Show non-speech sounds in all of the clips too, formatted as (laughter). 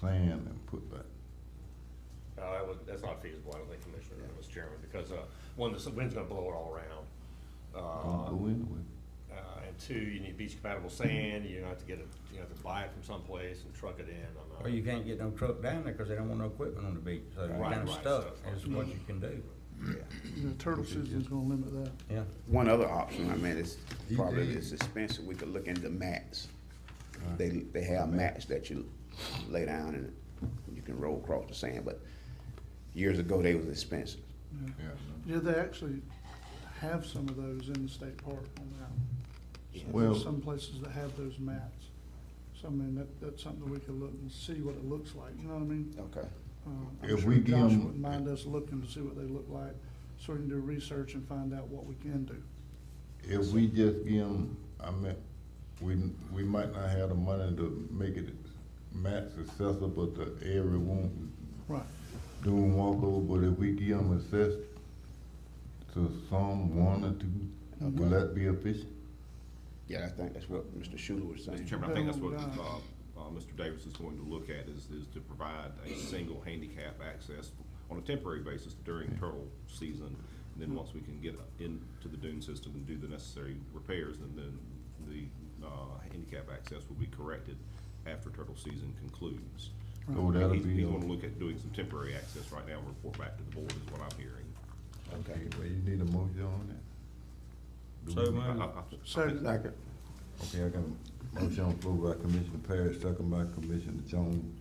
sand and put that, No, Uh, that was, that's not feasible, I don't think, Commissioner, Mr. Chairman, because, uh, one, the wind's gonna blow it all around. don't Uh, go anywhere. uh, and two, you need beach compatible sand, you have to get it, you have to buy it from someplace and truck it in, I'm not. Or you can't get no truck down there because they don't want no equipment on the beach, so you're Right, kind of right, stuck, so- is what you can do, The turtle season's gonna limit that. yeah. One other option, I mean, it's probably it's expensive, we could look into mats. They, they have mats that you lay down and you can roll across the sand, but years ago, they was expensive. Yeah, Yeah, they actually have some of those in the state park on that. Some- Well- Some places that have those mats. So I mean, that, that's something that we could look and see what it looks like, you know what I mean? Okay. Uh, I'm If sure we give Josh 'em- wouldn't mind us looking to see what they look like, so we can do research and find out what we can do. if we just give them, I mean, we, we might not have the money to make it max accessible to everyone Right. doing walkover, but if we give them access to some one or two, will that be efficient? Yeah, I think that's what Mr. Schuler was saying. Mr. Chairman, I think that's what, Well, uh, uh, Mr. Davis is going to look at is, is to provide a single handicap access on a temporary basis during turtle season. And then once we can get into the dune system and do the necessary repairs, and then the, uh, handicap access will be corrected after turtle season concludes. So Oh, that'll He's, be, uh, he's gonna on- look at doing some temporary access right now and report back to the board is what I'm hearing. okay, well, you need a motion on that? Do we So need- I- moved. I- I- Second. Second. Okay, I got a motion on the floor by Commissioner Parrish, second by Commissioner Jones,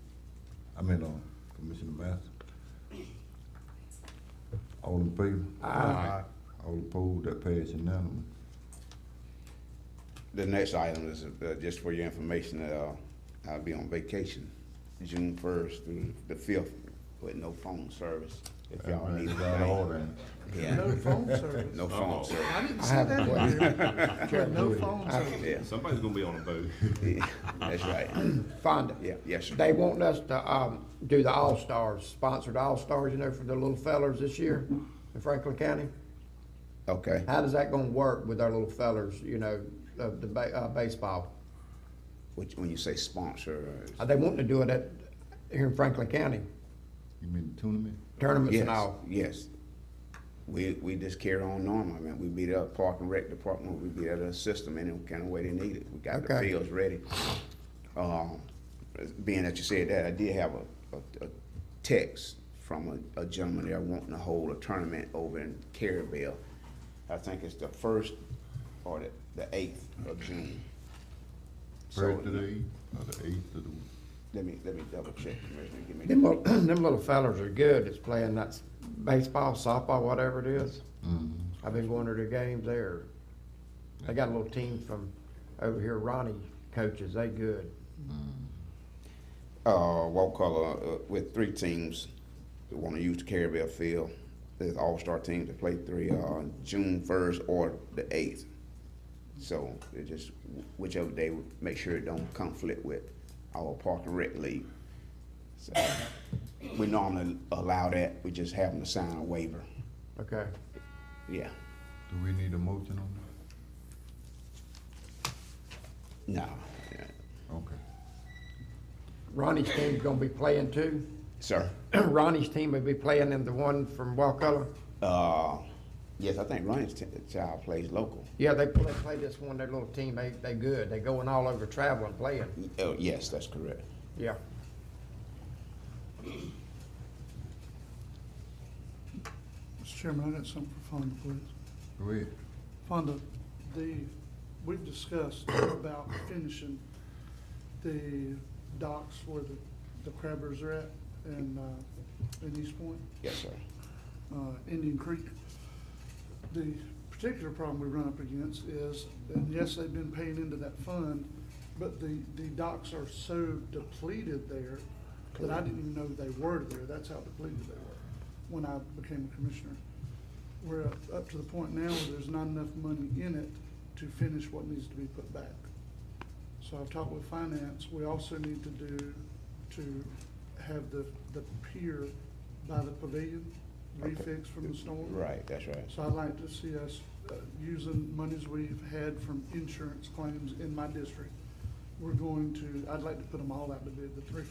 I mean, um, Commissioner Master. All in favor? Aye. All opposed, that pass unanimous. The next item is, uh, just for your information, uh, I'll be on vacation, June first through the fifth, with no phone service. If y'all need Everything's out of anything. order. (laughs) Yeah, No phone service. no phone service. I didn't see that (laughs) in here. No phone service. Yeah, Somebody's gonna be on a boat. yeah, that's right. (clears throat) Fonda. Yeah, yes, sir. They wanting us to, um, do the All-Stars, sponsored All-Stars, you know, for the little fellers this year in Franklin County. Okay. How does that gonna work with our little fellers, you know, of the ba- uh, baseball? Which, when you say sponsor, uh, Are they wanting to do it at, here in Franklin County, You mean the tournament? tournaments yes, and all? yes. We, we just carry on normal, I mean, we be the park and rec department, we be the system any kind of way they need it, we got the Okay. fields ready. Um, being that you said that, I did have a, a, a text from a, a gentleman there wanting to hold a tournament over in Carabel. I think it's the first or the, the eighth of June. So, First to the eighth, or the eighth to the, Let me, let me double check, Commissioner, give me. Them, little- (clears throat) them little fellers are good, that's playing that s- baseball, softball, whatever it is. mm, I've been going to their games there. They got a little team from over here, Ronnie coaches, they good. uh, Waukalla uh, with three teams that want to use the Carabel Field. There's all star teams that play three uh, June 1st or the 8th. So it just whichever day, make sure it don't conflict with our park and rec league. So we normally allow that. We just have them to sign a waiver. Okay, Yeah. do we need a motion on No. that? Okay. Ronnie's team's gonna be playing too? Sir. (clears throat) Ronnie's team would be playing in the one from Wakulla. Uh, yes, I think Ronnie's t- child plays local. Yeah, they play, play this one, their little team, they, they good, they going all over traveling, playing, Y- Oh, yes, that's correct. yeah. Mr. Chairman, I got something for Fonda, please. Go ahead. Fonda, the, we've discussed about finishing the docks where the, the crabbers are at and, uh, in East Point, Yes, sir. uh, Indian Creek. The particular problem we run up against is, and yes, they've been paying into that fund, but the, the docks are so depleted there that I didn't even know they were there. That's how depleted they were when I became a commissioner. We're up, up to the point now where there's not enough money in it to finish what needs to be put back. So I've talked with finance, we also need to do, to have the, the pier by the pavilion refixed from the storm. Right, that's right. So I'd like to see us uh, using monies we've had from insurance claims in my district. We're going to, I'd like to put them all out to bid, the three